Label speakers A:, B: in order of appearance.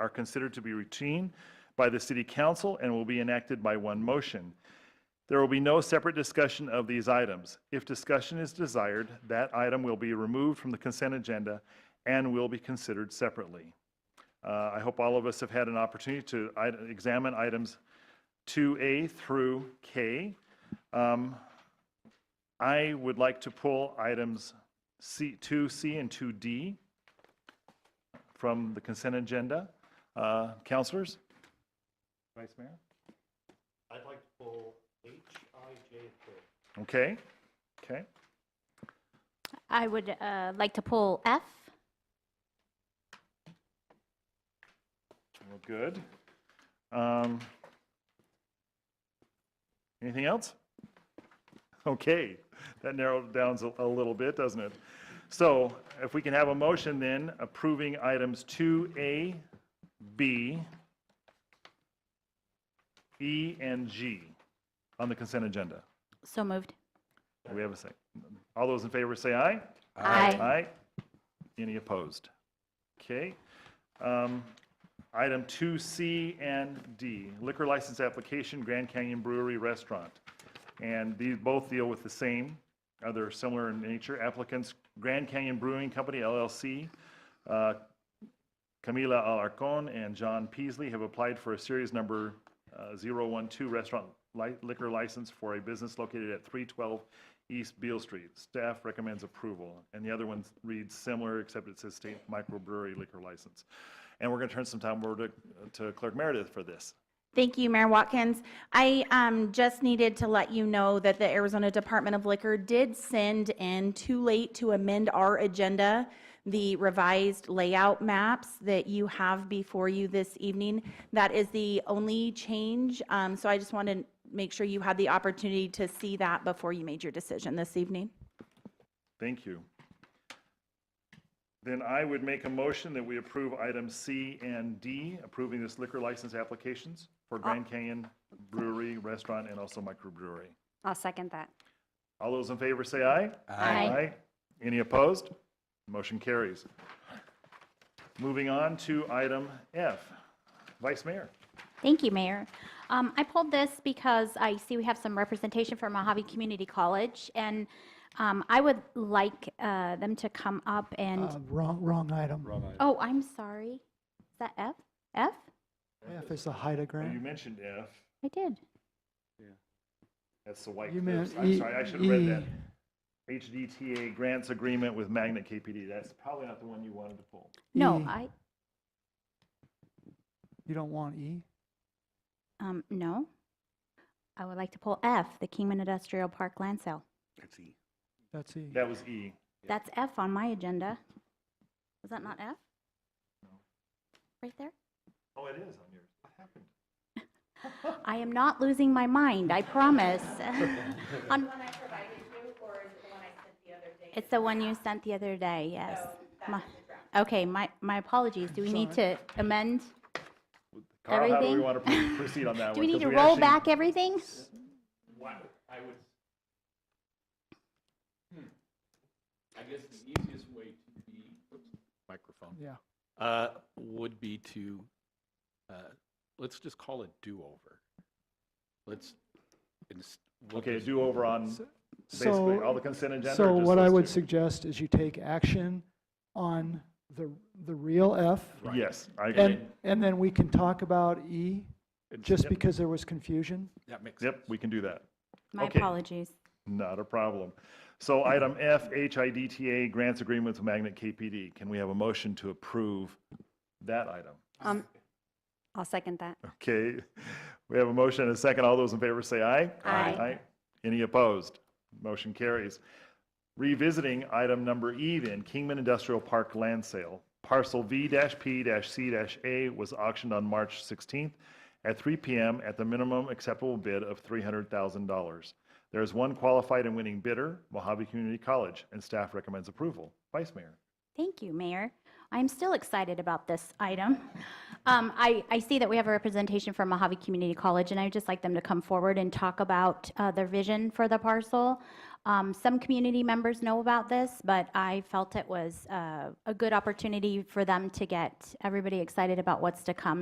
A: are considered to be routine by the city council and will be enacted by one motion. There will be no separate discussion of these items. If discussion is desired, that item will be removed from the consent agenda and will be considered separately. Uh, I hope all of us have had an opportunity to ite- examine items 2A through K. Um, I would like to pull items C, 2C and 2D from the consent agenda. Uh, Counselors? Vice Mayor?
B: I'd like to pull H-I-J third.
A: Okay, okay.
C: I would uh, like to pull F.
A: Well, good. Um, Anything else? Okay, that narrowed it down a a little bit, doesn't it? So if we can have a motion then approving items 2A, B, E, and G on the consent agenda.
C: So moved.
A: Do we have a second? All those in favor say aye.
C: Aye.
A: Aye. Any opposed? Okay. Um, Item 2C and D, liquor license application, Grand Canyon Brewery Restaurant. And these both deal with the same, other similar in nature. Applicants, Grand Canyon Brewing Company LLC, uh, Camila Alarcon and John Peasley have applied for a series number uh, 012 restaurant li- liquor license for a business located at 312 East Beale Street. Staff recommends approval. And the other one reads similar, except it says state microbrewery liquor license. And we're going to turn some time over to to Clerk Meredith for this.
D: Thank you, Mayor Watkins. I um, just needed to let you know that the Arizona Department of Liquor did send in, too late to amend our agenda, the revised layout maps that you have before you this evening. That is the only change, um, so I just wanted to make sure you had the opportunity to see that before you made your decision this evening.
A: Thank you. Then I would make a motion that we approve items C and D, approving this liquor license applications for Grand Canyon Brewery, Restaurant, and also microbrewery.
E: I'll second that.
A: All those in favor say aye.
C: Aye.
A: Any opposed? Motion carries. Moving on to item F. Vice Mayor.
C: Thank you, Mayor. Um, I pulled this because I see we have some representation from Mojave Community College, and um, I would like uh, them to come up
F: Uh,
C: and,
F: Wrong, wrong item.
C: oh, I'm sorry. Is that F? F?
F: F is the HIDA
A: You
F: grant.
A: mentioned F.
C: I did.
A: That's the White
F: You
A: Cliffs.
F: meant
A: I'm
F: E-
A: sorry, I should have read that.
F: E.
A: HDTA grants agreement with Magnet KPD. That's probably not the one you wanted to pull.
C: No,
F: E.
C: I,
F: You don't want E?
C: um, no. I would like to pull F, the Kingman Industrial Park land sale.
F: That's E.
A: That was E.
C: That's F on my agenda. Is that not F? Right there?
A: Oh, it is on yours. What happened?
C: I am not losing my mind, I promise. On- It's the one you sent the other day, yes. My- Okay, my, my apologies. Do we need to amend?
A: Carl, how do we
C: Everything?
A: want to proceed on that one?
C: Do we
A: 'Cause
C: need to roll
A: actually-
C: back everything?
B: Why, I would. I guess the easiest way to be. Microphone.
F: Yeah.
B: Uh, would be to, uh, let's just call it do-over. Let's, ins- we'll
A: Okay,
B: just-
A: do over on basically all the
F: So,
A: consent agenda? or
F: so
A: just
F: what I
A: those
F: would
A: two?
F: suggest is you take action on the, the real F.
A: Yes, I agree.
F: And, and then we can talk about E, just
A: Yep.
F: because there was confusion.
B: That makes sense.
A: Yep, we can do that.
C: My
A: Okay.
C: apologies.
A: Not a problem. So item F, HIDTA grants agreement with Magnet KPD. Can we have a motion to approve that item?
E: Um, I'll second that.
A: Okay, we have a motion and a second. All those in favor say aye.
E: Aye.
A: Any opposed? Motion carries. Revisiting item number E then, Kingman Industrial Park land sale. Parcel V-P-C-A was auctioned on March 16th at 3 PM at the minimum acceptable bid of $300,000. There is one qualified and winning bidder, Mojave Community College, and staff recommends approval. Vice Mayor.
C: Thank you, Mayor. I'm still excited about this item. Um, I, I see that we have a representation from Mojave Community College, and I'd just like them to come forward and talk about uh, their vision for the parcel. Um, Some community members know about this, but I felt it was uh, a good opportunity for them to get everybody excited about what's to come